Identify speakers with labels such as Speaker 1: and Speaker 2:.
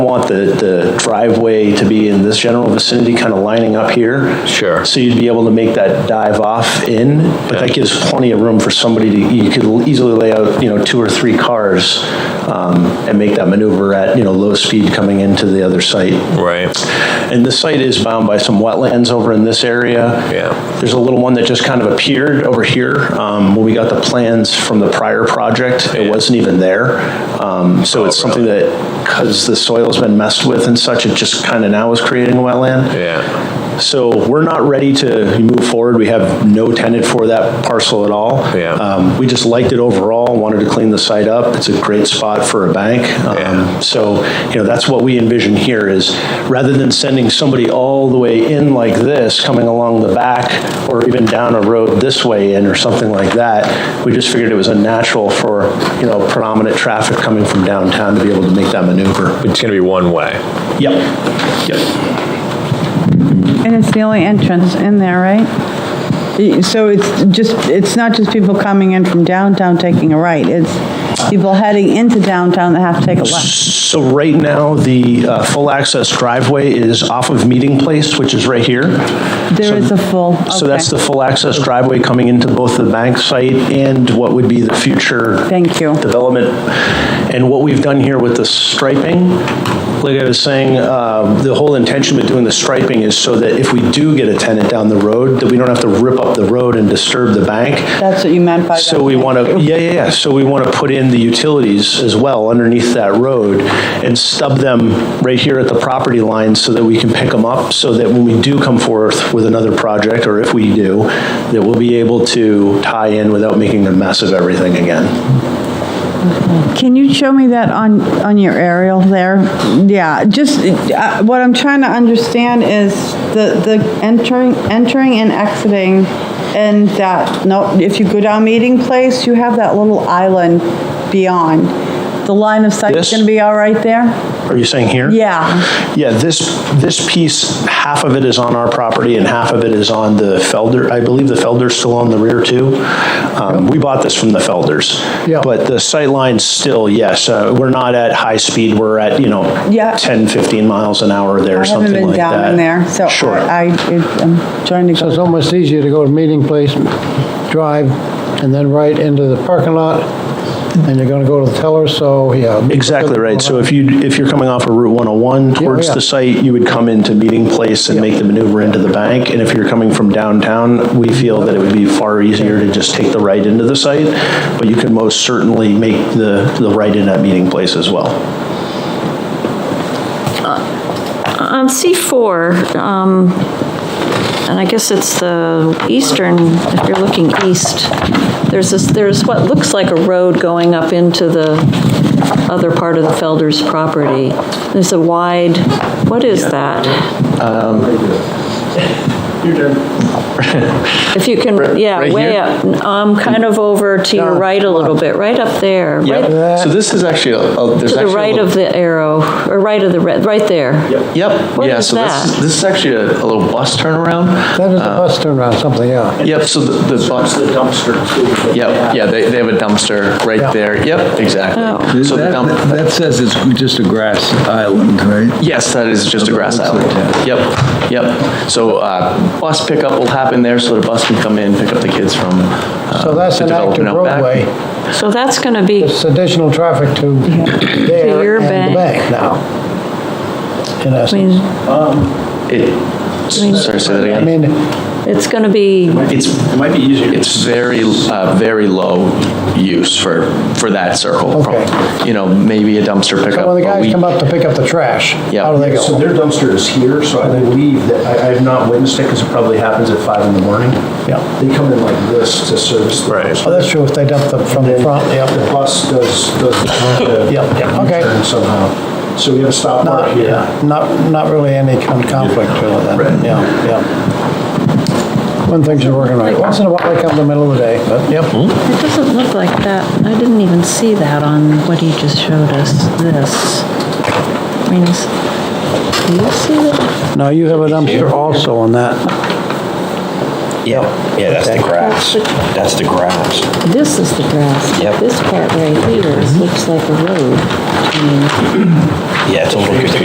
Speaker 1: want the, the driveway to be in this general vicinity, kind of lining up here.
Speaker 2: Sure.
Speaker 1: So you'd be able to make that dive off in, but that gives plenty of room for somebody to, you could easily lay out, you know, two or three cars um, and make that maneuver at, you know, low speed coming into the other site.
Speaker 2: Right,
Speaker 1: And this site is bound by some wetlands over in this area.
Speaker 2: yeah,
Speaker 1: There's a little one that just kind of appeared over here. Um, When we got the plans from the prior project, it
Speaker 2: Yeah.
Speaker 1: wasn't even there. Um, So it's
Speaker 2: Oh,
Speaker 1: something that, because the soil's been messed with and such, it just kind of now is creating a wetland.
Speaker 2: yeah,
Speaker 1: So we're not ready to move forward. We have no tenant for that parcel at all.
Speaker 2: Yeah.
Speaker 1: Um, We just liked it overall, wanted to clean the site up. It's a great spot for a bank. Um,
Speaker 2: Yeah.
Speaker 1: So, you know, that's what we envision here is rather than sending somebody all the way in like this, coming along the back or even down a road this way in or something like that, we just figured it was unnatural for, you know, predominant traffic coming from downtown to be able to make that maneuver.
Speaker 2: it's gonna be one way.
Speaker 1: Yep, yep.
Speaker 3: And it's the only entrance in there, right? Y- So it's just, it's not just people coming in from downtown taking a right, it's people heading into downtown that have to take a left.
Speaker 1: So right now, the uh, full access driveway is off of Meeting Place, which is right here.
Speaker 3: There is a full,
Speaker 1: So that's the
Speaker 3: okay.
Speaker 1: full access driveway coming into both the bank site and what would be the future.
Speaker 3: Thank you.
Speaker 1: Development. And what we've done here with the striping, like I was saying, um, the whole intention with doing the striping is so that if we do get a tenant down the road, that we don't have to rip up the road and disturb the bank.
Speaker 3: That's what you meant by that.
Speaker 1: So we want to, yeah, yeah, yeah, so we want to put in the utilities as well underneath that road and stub them right here at the property line so that we can pick them up, so that when we do come forth with another project, or if we do, that we'll be able to tie in without making a mess of everything again.
Speaker 3: Can you show me that on, on your aerial there? Yeah, just, uh, what I'm trying to understand is the, the entering, entering and exiting and that, no, if you go down Meeting Place, you have that little island beyond. The line of sight is
Speaker 1: This?
Speaker 3: going to be all right there?
Speaker 1: Are you saying here?
Speaker 3: Yeah,
Speaker 1: Yeah, this, this piece, half of it is on our property and half of it is on the Felder. I believe the Felder's still on the rear too. Um, We bought this from the Felders.
Speaker 4: Yeah.
Speaker 1: But the sight line's still, yes, uh, we're not at high speed, we're at, you know,
Speaker 3: Yeah.
Speaker 1: 10, 15 miles an hour there,
Speaker 3: I
Speaker 1: or
Speaker 3: haven't
Speaker 1: something
Speaker 3: been
Speaker 1: like that.
Speaker 3: down in there, so
Speaker 1: Sure.
Speaker 3: I, I- I'm trying to
Speaker 4: So it's
Speaker 3: go.
Speaker 4: almost easier to go to Meeting Place, drive, and then right into the parking lot, and you're gonna go to the teller, so, yeah.
Speaker 1: Exactly right. So if you, if you're coming off of Route 101 towards
Speaker 4: yeah.
Speaker 1: the site, you would come into Meeting Place and make the maneuver into the bank. And if you're coming from downtown, we feel that it would be far easier to just take the right into the site. But you can most certainly make the, the right in at Meeting Place as well.
Speaker 5: On C4, um, and I guess it's the eastern, if you're looking east, there's this, there's what looks like a road going up into the other part of the Felder's property. There's a wide, what is that?
Speaker 6: Um,
Speaker 5: If you can, yeah, way up, um, kind of over to your right a little bit, right up there, right
Speaker 6: So this is actually, a- a- there's
Speaker 5: to the
Speaker 6: actually. a
Speaker 5: right
Speaker 6: little-
Speaker 5: of the arrow, or right of the, red, right there.
Speaker 6: Yep,
Speaker 5: What
Speaker 6: yeah,
Speaker 5: is
Speaker 6: so this,
Speaker 5: that?
Speaker 6: is- this is actually a a little bus turnaround.
Speaker 4: That is a bus turnaround, something, yeah.
Speaker 6: Yep, so the the bus,
Speaker 1: dumpster too.
Speaker 6: yep, yeah, they, they have a dumpster right
Speaker 4: Yeah.
Speaker 6: there. Yep,
Speaker 5: Oh.
Speaker 6: exactly. So the
Speaker 7: That
Speaker 6: dump,
Speaker 7: that says it's just a grass island, right?
Speaker 6: Yes, that is just a grass island. Yep, yep. So uh, bus pickup will happen there, so the bus can come in, pick up the kids from uh,
Speaker 4: So that's
Speaker 6: the
Speaker 4: an active
Speaker 6: development out back.
Speaker 4: roadway,
Speaker 5: So that's going to be
Speaker 4: it's additional traffic to there
Speaker 5: your
Speaker 4: and
Speaker 5: bank.
Speaker 4: the bank now. In
Speaker 5: I mean,
Speaker 4: essence,
Speaker 6: It, sorry, say that
Speaker 4: I
Speaker 6: again.
Speaker 4: mean,
Speaker 5: it's going to be
Speaker 6: It's,
Speaker 1: It might be easier.
Speaker 6: it's very, uh, very low use for, for that circle. from-
Speaker 4: Okay.
Speaker 6: You know, maybe a dumpster pickup.
Speaker 4: so when the
Speaker 6: but we-
Speaker 4: guys come up to pick up the trash,
Speaker 6: Yeah.
Speaker 4: how do they
Speaker 1: So
Speaker 4: go?
Speaker 1: their dumpster is here, so I believe that, I, I have not witnessed it because it probably happens at five in the morning.
Speaker 4: Yeah.
Speaker 1: They come in like this to service the.
Speaker 2: Right.
Speaker 4: Oh, that's true, if they dump them from the front,
Speaker 1: The
Speaker 4: yeah.
Speaker 1: bus does, does. the-
Speaker 4: Yep, yep, okay.
Speaker 1: U-turn Somehow. So we have a stop mark
Speaker 4: Not,
Speaker 1: here.
Speaker 4: yeah, not, not really any con- conflict really, then, yeah, yeah. When things are working right, once in a while they come in the middle of the day, but, yep.
Speaker 5: It doesn't look like that. I didn't even see that on what he just showed us, this. I mean, is- do you see that?
Speaker 4: Now, you have a dumpster also on that.
Speaker 2: Yeah, yeah, that's the grass. That's the grass.
Speaker 5: This is the grass.
Speaker 2: Yep.
Speaker 5: This part right here looks like a road. I mean,
Speaker 2: Yeah, it's a little bit